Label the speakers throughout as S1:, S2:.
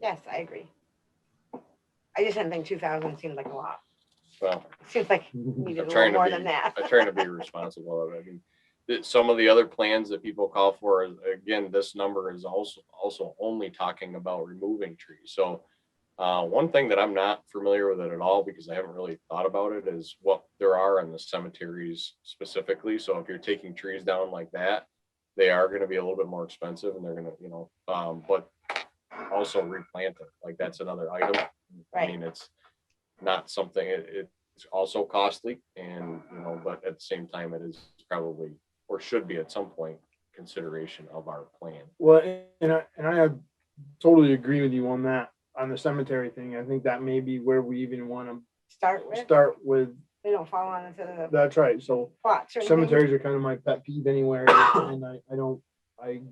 S1: Yes, I agree. I just didn't think two thousand seemed like a lot.
S2: Well,
S1: It Seems like
S3: Mhm.
S1: needed a
S2: I'm trying
S1: little
S2: to
S1: more than
S2: be-
S1: that.
S2: I try to be responsible of it. I mean, that some of the other plans that people call for, is- again, this number is also, also only talking about removing trees. So uh, one thing that I'm not familiar with it at all, because I haven't really thought about it, is what there are in the cemeteries specifically. So if you're taking trees down like that, they are gonna be a little bit more expensive and they're gonna, you know, um, but also replant it. Like that's another item. I
S1: Right.
S2: mean, it's not something, it, it, it's also costly and, you know, but at the same time, it is probably, or should be at some point, consideration of our plan.
S3: Well, and I, and I totally agree with you on that, on the cemetery thing. I think that may be where we even want
S1: Start
S3: to
S1: with,
S3: start with.
S1: they don't fall on into the
S3: That's right. So
S1: plots or anything.
S3: cemeteries are kind of my pet peeve anywhere and I, I don't, I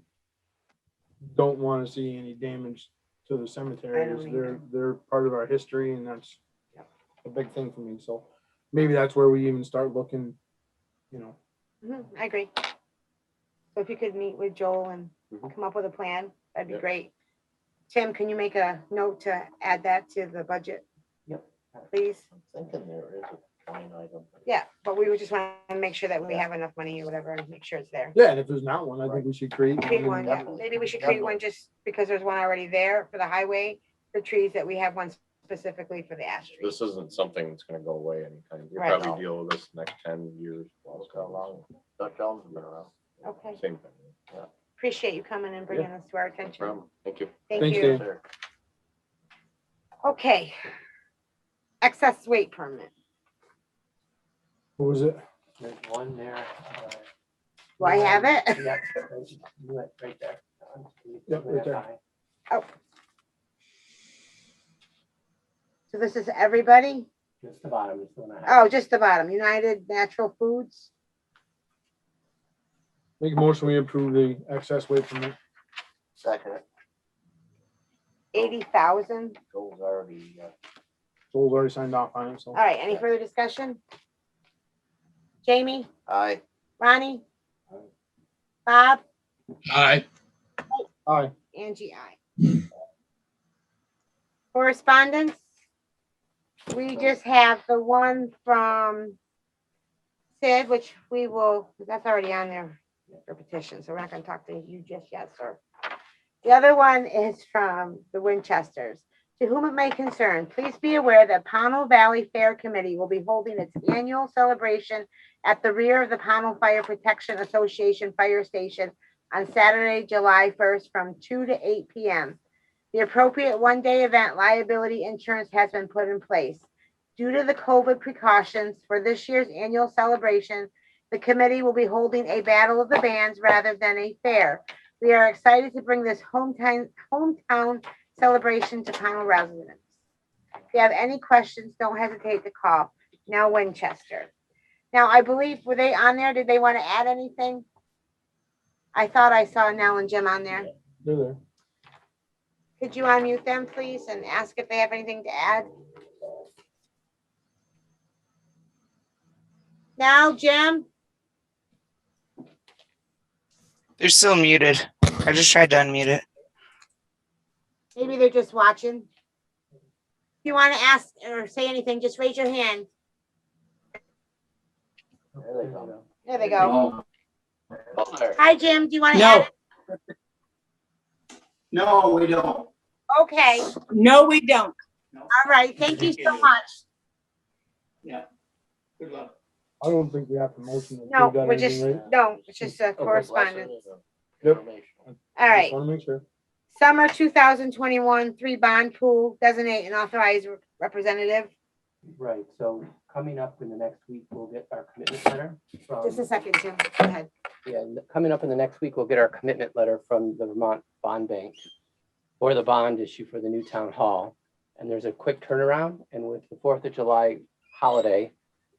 S3: don't want to see any damage to the cemeteries. They're,
S1: either.
S3: they're part of our history and that's
S1: Yep.
S3: a big thing for me. So maybe that's where we even start looking, you know,
S1: Mhm, I agree. So if you could meet with Joel and
S2: Mhm.
S1: come up with a plan, that'd be
S2: Yep.
S1: great. Tim, can you make a note to add that to the budget?
S4: Yep.
S1: Please?
S4: I'm thinking there is a line item.
S1: Yeah, but we would just want to make sure that we
S4: Yeah.
S1: have enough money or whatever and make sure it's there.
S3: yeah, and if there's not one, I think we should create. one
S1: Create
S3: and-
S1: one, yeah.
S4: Definitely,
S1: Maybe we should create one just because there's one already there for the highway, for trees that we have one specifically for the ash tree.
S2: This isn't something that's gonna go away anytime. You'll
S1: Right.
S2: probably deal with this next ten years.
S4: Well, it's got a long, Dutch elm's been around.
S1: Okay,
S2: Same thing.
S1: appreciate you coming and bringing this to our
S2: No
S1: attention.
S2: problem. Thank you.
S1: Thank
S3: Thanks,
S1: you.
S3: Dan.
S4: There.
S1: Okay. Excess weight permit.
S3: What was it?
S4: There's one there. uh,
S1: Do I have it?
S4: yeah, right- you went Right there.
S3: Yep, right there.
S1: So this is everybody?
S4: Just the bottom is the one I have.
S1: Oh, just the bottom, United Natural Foods.
S3: Make a motion, we approve the excess weight permit.
S4: Second, it
S1: eighty thousand.
S4: goes already, uh,
S3: Joel's already signed off on it, so.
S1: All right, any further discussion? Jamie,
S4: aye.
S1: Ronnie? Bob,
S5: Aye.
S3: Aye.
S1: Angie, I. Correspondence? We just have the one from Sid, which we will, that's already on there for petition, so we're not gonna talk to you just yet, sir. The other one is from the Winchesters. To whom it may concern, please be aware that Pownell Valley Fair Committee will be holding its annual celebration at the rear of the Pownell Fire Protection Association Fire Station on Saturday, July first, from two to eight P M. The appropriate one-day event liability insurance has been put in place. Due to the COVID precautions for this year's annual celebration, the committee will be holding a battle of the bands rather than a fair. We are excited to bring this hometown, hometown celebration to panel residents. If you have any questions, don't hesitate to call. Now Winchester. Now, I believe, were they on there? Did they want to add anything? I thought I saw Nell and Jim on there.
S3: They're there.
S1: Could you unmute them, please, and ask if they have anything to add? Now, Jim?
S6: They're still muted. I just tried to unmute it.
S1: Maybe they're just watching. If you want to ask or say anything, just raise your hand.
S4: There they go.
S1: There they go.
S4: There.
S1: Hi, Jim, do you want to
S6: No.
S1: add?
S7: No, we don't.
S1: Okay, all
S8: No, we don't.
S1: right, thank you so much.
S7: Good luck.
S3: I don't think we have to motion. to
S1: No,
S3: approve that
S1: we're
S3: anything,
S1: just,
S3: right?
S1: no, it's just a correspondence.
S3: Yep.
S4: Information.
S1: All right.
S3: Just wanna make sure.
S1: Summer two thousand twenty-one, three bond pool, designate an authorized representative. Oh.
S4: Right, so coming up in the next week, we'll get our commitment letter from.
S1: Just a second, Jim, go ahead.
S4: Yeah, n- coming up in the next week, we'll get our commitment letter from the Vermont Bond Bank for the bond issue for the new town hall. And there's a quick turnaround, and with the Fourth of July holiday,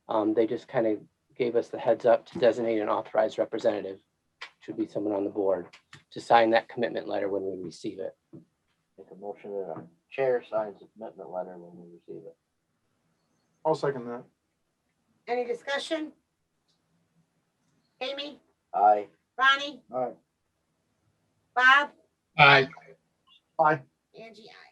S4: um, they just kind of gave us the heads up to designate an authorized representative, should be someone on the board, to sign that commitment letter when we receive it. Make a motion that our chair signs the commitment letter when we receive it.
S3: I'll second that.
S1: Any discussion? Amy,
S4: Aye.
S1: Ronnie,
S3: All right.
S1: Bob,
S5: Aye.
S1: Angie, I.